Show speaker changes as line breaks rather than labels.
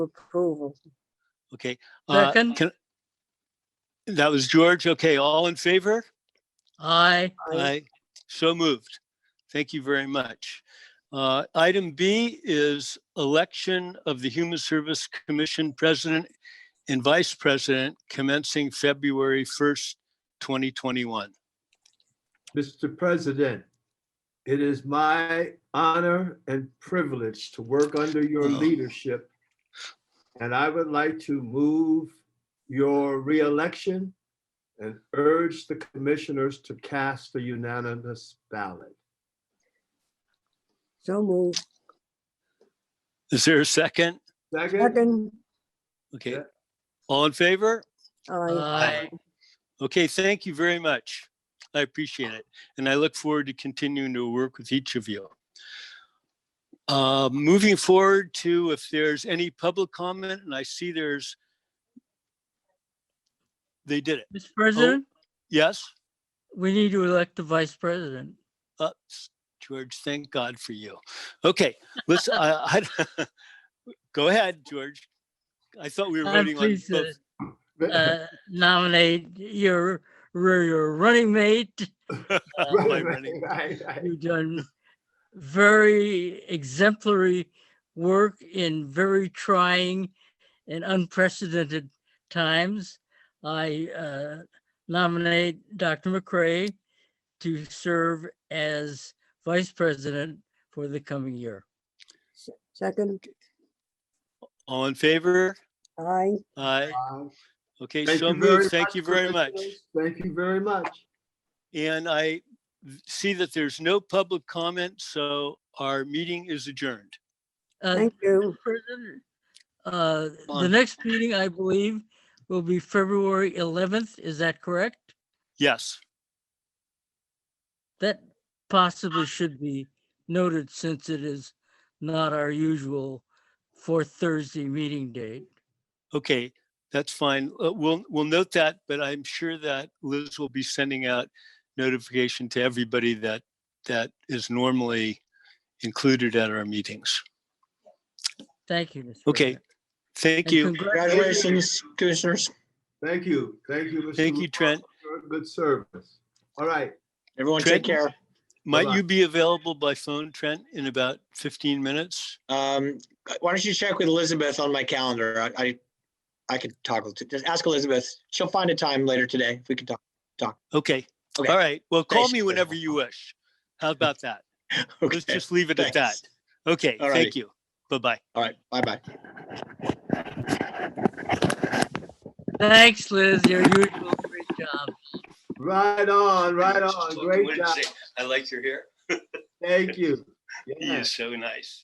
approval.
Okay. uh,
Second.
can- That was George. Okay, all in favor?
Aye.
Aye. So moved. Thank you very much. Uh, Item B is election of the Human Service Commission President and Vice President commencing February 1st, 2021.
Mr. President, it is my honor and privilege to work under your
Oh.
leadership. And I would like to move your reelection and urge the commissioners to cast a unanimous ballot.
So move.
Is there a second?
Second,
Second,
Okay.
Yeah.
All in favor?
aye.
Aye.
Okay, thank you very much. I appreciate it. And I look forward to continuing to work with each of you. Uh, Moving forward to if there's any public comment, and I see there's, they did it.
Mr. President,
Yes? Oh.
we need to elect the vice president.
Uh, s- George, thank God for you. Okay, let's, I, I, go ahead, George. I thought we were
I'm
voting on
pleased
both.
to uh, nominate your, your your running mate.
uh, by running.
Right, right.
You've done very exemplary work in very trying and unprecedented times. I uh, nominate Dr. McCray to serve as vice president for the coming year.
Second,
All in favor?
aye.
Aye.
Uh,
Okay,
thank
so
you very
moved. Thank
much,
you very much.
commissioners. Thank you very much.
And I see that there's no public comment, so our meeting is adjourned.
Uh,
Thank you.
President, uh, the
Fine.
next meeting, I believe, will be February 11th. Is that correct?
Yes,
That possibly should be noted since it is not our usual fourth Thursday meeting date.
okay, that's fine. Uh, We'll, we'll note that, but I'm sure that Liz will be sending out notification to everybody that, that is normally included at our meetings.
Thank you. Mr.
Okay,
President.
thank
And
you.
congratulations.
Congratulations, commissioners.
Thank you. Thank you. Mr.
Thank you, Trent.
LaFosse, for Good service. All right.
Everyone take care.
Might
Bye-bye.
you be available by phone, Trent, in about 15 minutes?
Um, why don't you check with Elizabeth on my calendar? I, I, I could talk to, just ask Elizabeth. She'll find a time later today if we can talk.
Okay, all
Okay.
right. Well, call
Thanks.
me whenever you wish. How about that? Let's
Okay,
just leave it at that.
thanks.
Okay,
All
thank
righty.
you. Bye-bye.
All right, bye-bye.
Thanks, Liz. Your usual great job.
Right on, right on. Great job.
I like your hair.
Thank you. Yeah.
so nice.